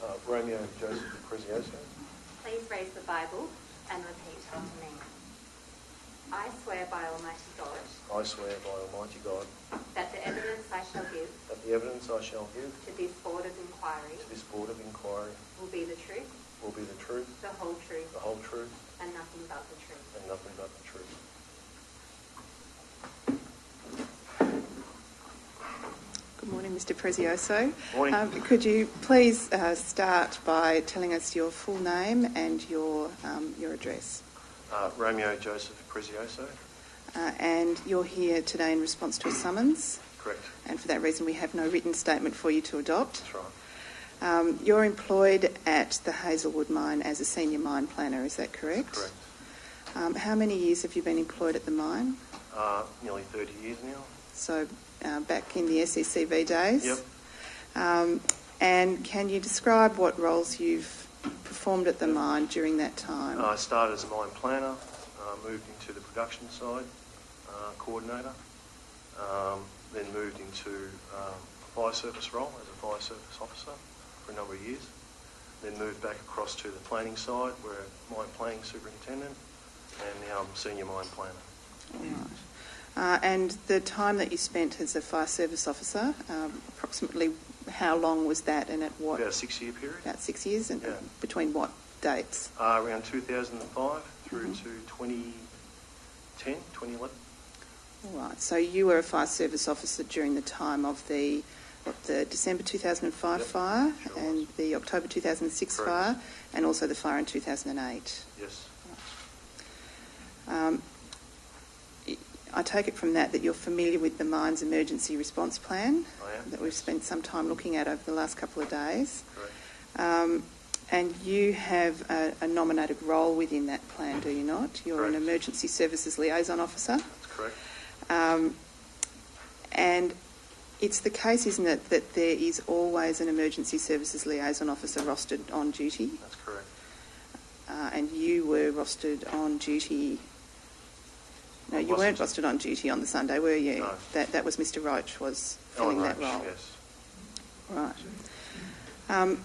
Uh, Romeo and Joseph of Crisiosto, Please raise the Bible and repeat after me. I swear by Almighty God I swear by Almighty God that the evidence I shall give that the evidence I shall give to this Board of Inquiry to this Board of Inquiry will be the truth, will be the truth, the whole truth, the whole truth, and nothing but the truth. and nothing but the truth. Good morning, Mr. Prezioso. Morning. Um, could you please uh, start by telling us your full name and your um, your address? Uh, Romeo Joseph of Crisiosto, Uh, and you're here today in response to a summons, correct? and for that reason, we have no written statement for you to adopt. That's right. Um, you're employed at the Hazelwood mine as a senior mine planner. Is that correct? Correct. Um, how many years have you been employed at the mine? Uh, nearly 30 years now. So uh, back in the SECV days. Yep. Um, and can you describe what roles you've performed at the mine during that time? Uh, I started as a mine planner, uh, moved into the production side uh, coordinator, um, then moved into um, a fire service role as a fire service officer for a number of years, then moved back across to the planning side where mine planning superintendent, and now I'm senior mine planner. All right. Uh, and the time that you spent as a fire service officer, um, approximately how long was that and at what? About a six-year period. About six years? And Yeah. between what dates? Uh, around 2005 through Mhm. to 2010, 2011. All right. So you were a fire service officer during the time of the what, the December 2005 Yep, fire sure was. and the October 2006 Correct. fire and also the fire in 2008. Yes, Um, I take it from that that you're familiar with the mine's emergency response plan I am. that we've spent some time looking at over the last couple of days. correct. Um, and you have a, a nominated role within that plan, do you not? You're an Correct. emergency services liaison officer. That's correct. Um, and it's the case, isn't it, that there is always an emergency services liaison officer rostered on duty? That's correct. Uh, and you were rostered on duty. No, I you weren't wasn't. rostered on duty on the Sunday, were you? No. That that was Mr. Roach was Ellen filling that Roach, role. Yes. Right. Um,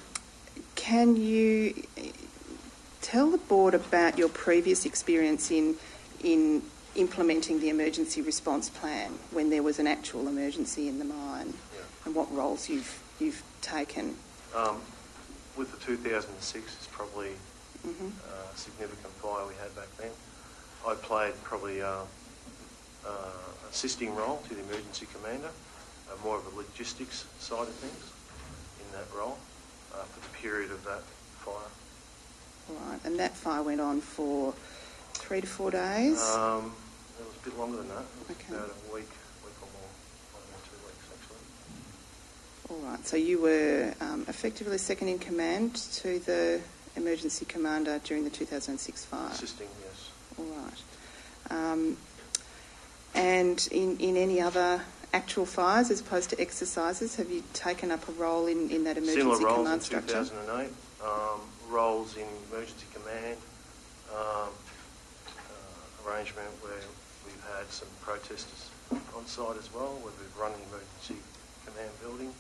can you eh, tell the board about your previous experience in in implementing the emergency response plan when there was an actual emergency in the mine, Yeah. and what roles you've you've taken? Um, with the 2006, it's probably hmm uh, a significant fire we had back then. I played probably uh, uh, assisting role to the emergency commander, uh, more of a logistics side of things in that role uh, for the period of that fire. All right, and that fire went on for three to four days. Um, it was a bit longer than that. It was Okay. about a week, week or more, might have been two weeks actually. All right, so you were um, effectively second in command to the emergency commander during the 2006 fire. Assisting, yes. All right. Um, and in, in any other actual fires as opposed to exercises, have you taken up a role in, in that emergency Similar roles command in structure? 2008, um, roles in emergency command, um, uh, arrangement where we've had some protesters on site as well, where we've run an emergency command building.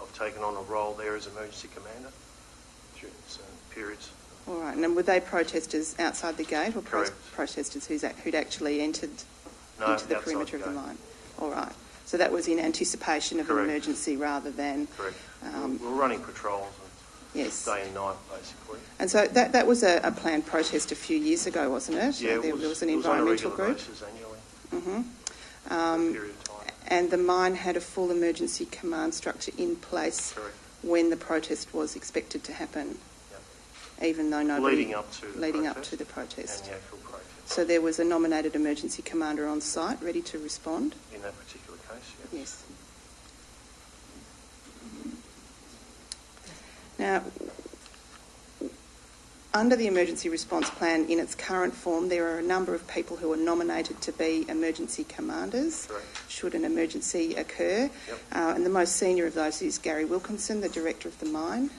I've taken on a role there as emergency commander during some periods. All right, and then were they protesters outside the gate or pro- Correct. protesters who's ac who'd actually entered No, into the outside perimeter the of the gate. mine? All right, so that was in anticipation of Correct. an emergency rather than. Correct. Um, We're we're running patrols and Yes. day and night, basically. And so that, that was a, a planned protest a few years ago, wasn't it? Yeah, it there, was- there was an it on a environmental regular group. basis annually, hmm for a Um, period of time. and the mine had a full emergency command structure in place Correct. when the protest was expected to happen, Yeah. even though nobody Leading up to the leading up protest to the protest. And the actual protest. So there was a nominated emergency commander on site ready to respond. In that particular case, yes. Yes. Now, under the emergency response plan in its current form, there are a number of people who are nominated to be emergency commanders Correct. should an emergency occur. Yep. Uh, and the most senior of those is Gary Wilkinson, the director of the mine.